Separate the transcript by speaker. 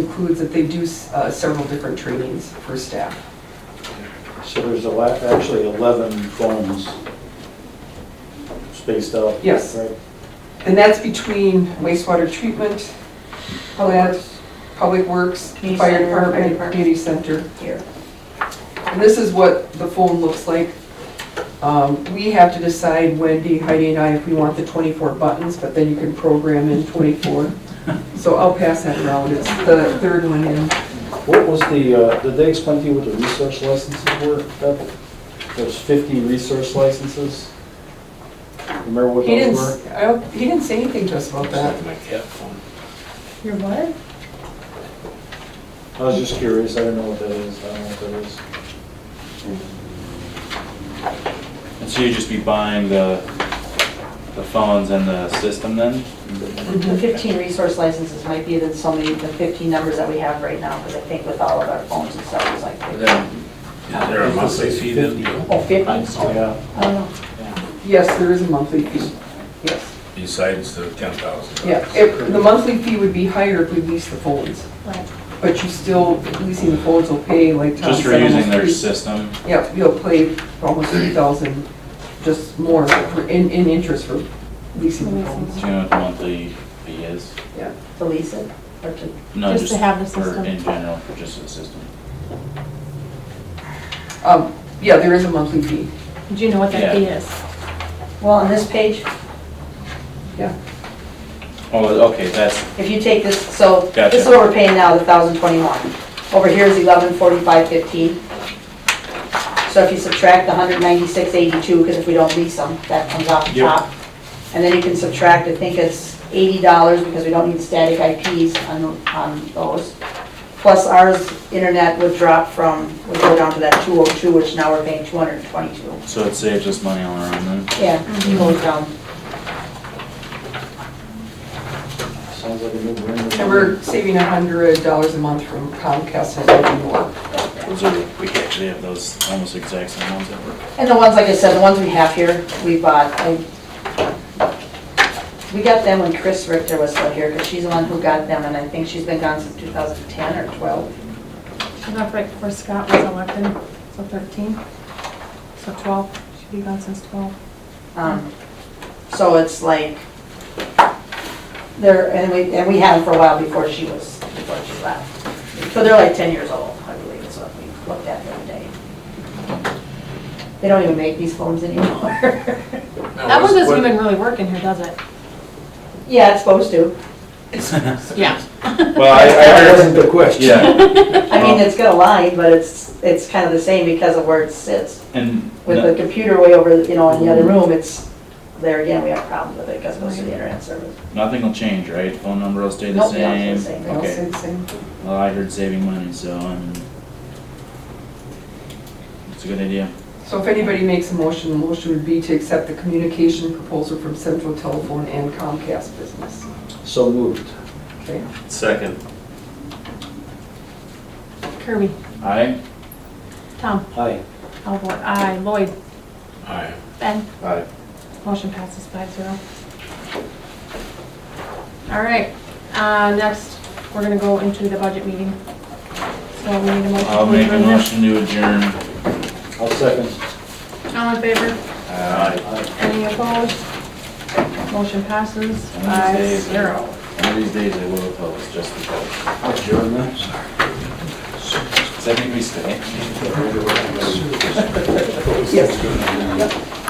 Speaker 1: includes that they do uh, several different trainings for staff.
Speaker 2: So there's a lot, actually 11 phones spaced out.
Speaker 1: Yes.
Speaker 2: Right.
Speaker 1: And that's between wastewater treatment, labs, public works,
Speaker 3: Community
Speaker 1: fire
Speaker 3: center,
Speaker 1: department,
Speaker 3: fire
Speaker 1: and
Speaker 3: department.
Speaker 1: community center.
Speaker 3: here.
Speaker 1: And this is what the phone looks like. Um, We have to decide, Wendy, Heidi and I, if we want the 24 buttons, but then you can program in 24. So I'll pass that around, it's the third one in.
Speaker 2: What was the, uh, did they explain to you what the research licenses were? Beth? There's 50 research licenses? Remember what
Speaker 1: He
Speaker 2: those
Speaker 1: didn't,
Speaker 2: were?
Speaker 1: s- I don't- he didn't say anything to us about that.
Speaker 4: Something like that phone.
Speaker 3: Your what?
Speaker 2: I was just curious, I didn't know what that is, I don't know what that is.
Speaker 5: And so you'd just be buying the, the phones and the system then?
Speaker 3: The 15 resource licenses might be than so many, the 15 numbers that we have right now, because I think with all of our phones and stuff, it's like,
Speaker 4: But
Speaker 3: 50.
Speaker 4: then, Is there a monthly fee then? Bill?
Speaker 3: oh, 50?
Speaker 2: Oh, yeah.
Speaker 3: I don't know.
Speaker 1: Yes, there is a monthly fee, yes.
Speaker 4: Besides the ten thousand?
Speaker 1: Yeah, if, the monthly fee would be higher if we leased the phones. But you still, leasing the phones will pay like Tom
Speaker 5: Just for
Speaker 1: said,
Speaker 5: using their
Speaker 1: almost three-
Speaker 5: system?
Speaker 1: Yep, you'll pay almost three thousand, just more for, in, in interest for leasing the phones.
Speaker 5: Do you know what the monthly fee is?
Speaker 3: To lease it, or to,
Speaker 5: No,
Speaker 6: Just to have the
Speaker 5: for-
Speaker 6: system.
Speaker 5: In general, for just the system.
Speaker 1: Um, yeah, there is a monthly fee,
Speaker 6: Do you know what that fee
Speaker 5: Yeah.
Speaker 6: is?
Speaker 3: well, on this page,
Speaker 1: yeah.
Speaker 5: Oh, okay, that's,
Speaker 3: if you take this, so,
Speaker 5: Gotcha.
Speaker 3: this is what we're paying now, the 1,021. Over here is 1145.15. So if you subtract the 196.82, because if we don't lease them, that comes off the
Speaker 5: Yep.
Speaker 3: top. And then you can subtract, I think it's $80, because we don't need static IPs on, on those. Plus ours, internet would drop from, would go down to that 202, which now we're paying 222.
Speaker 5: so it saves us money all around then?
Speaker 3: Yeah, it goes down.
Speaker 2: Sounds like a new brand.
Speaker 1: And we're saving a hundred dollars a month from Comcast and Open Door.
Speaker 5: Those are, we actually have those almost exact same ones that work.
Speaker 3: And the ones, like I said, the ones we have here, we bought, I, we got them when Chris Richter was still here, because she's the one who got them, and I think she's been gone since 2010 or 12.
Speaker 6: Not right before Scott was elected, so 13, so 12, should be gone since 12.
Speaker 3: Um, So it's like, they're, and we, and we had them for a while before she was, before she left. But they're like 10 years old, I believe, is what we looked at the other day. They don't even make these phones anymore.
Speaker 5: Oh,
Speaker 6: That one doesn't even really work in here, does it?
Speaker 3: Yeah, it's supposed to.
Speaker 6: Yeah.
Speaker 5: Well, I, I
Speaker 2: That
Speaker 5: heard,
Speaker 2: wasn't the question.
Speaker 5: yeah,
Speaker 3: I mean, it's got a line, but it's, it's kind of the same because of where it sits.
Speaker 5: and,
Speaker 3: With the computer way over, you know, in the other room, it's, there again, we have problems with it because most of the internet service.
Speaker 5: Nothing will change, right? Phone number will stay the
Speaker 3: Nope, they all stay
Speaker 5: same?
Speaker 3: the same.
Speaker 1: They all
Speaker 5: Okay.
Speaker 1: say the same.
Speaker 5: Well, I heard saving money, so I'm. It's a good idea.
Speaker 1: So if anybody makes a motion, the motion would be to accept the communication proposal from Central Telephone and Comcast Business.
Speaker 2: So moved.
Speaker 1: Okay,
Speaker 4: Second.
Speaker 6: Kirby,
Speaker 5: Aye?
Speaker 6: Tom,
Speaker 2: Hi.
Speaker 6: I'll vote aye. Lloyd,
Speaker 4: Aye.
Speaker 6: Ben,
Speaker 5: Aye.
Speaker 6: motion passes five zero. All right, uh, next, we're gonna go into the budget meeting. So we need a motion.
Speaker 5: I'll
Speaker 6: to
Speaker 5: make a
Speaker 6: adjourn this.
Speaker 5: motion to adjourn.
Speaker 2: I'll second.
Speaker 6: All in favor?
Speaker 5: Aye.
Speaker 2: Aye.
Speaker 6: Any opposed? Motion passes
Speaker 5: One of these
Speaker 6: five
Speaker 5: days-
Speaker 6: zero.
Speaker 5: One of these days I will oppose, just because.
Speaker 2: Adjournment.
Speaker 5: Does that make me stay?
Speaker 1: yes.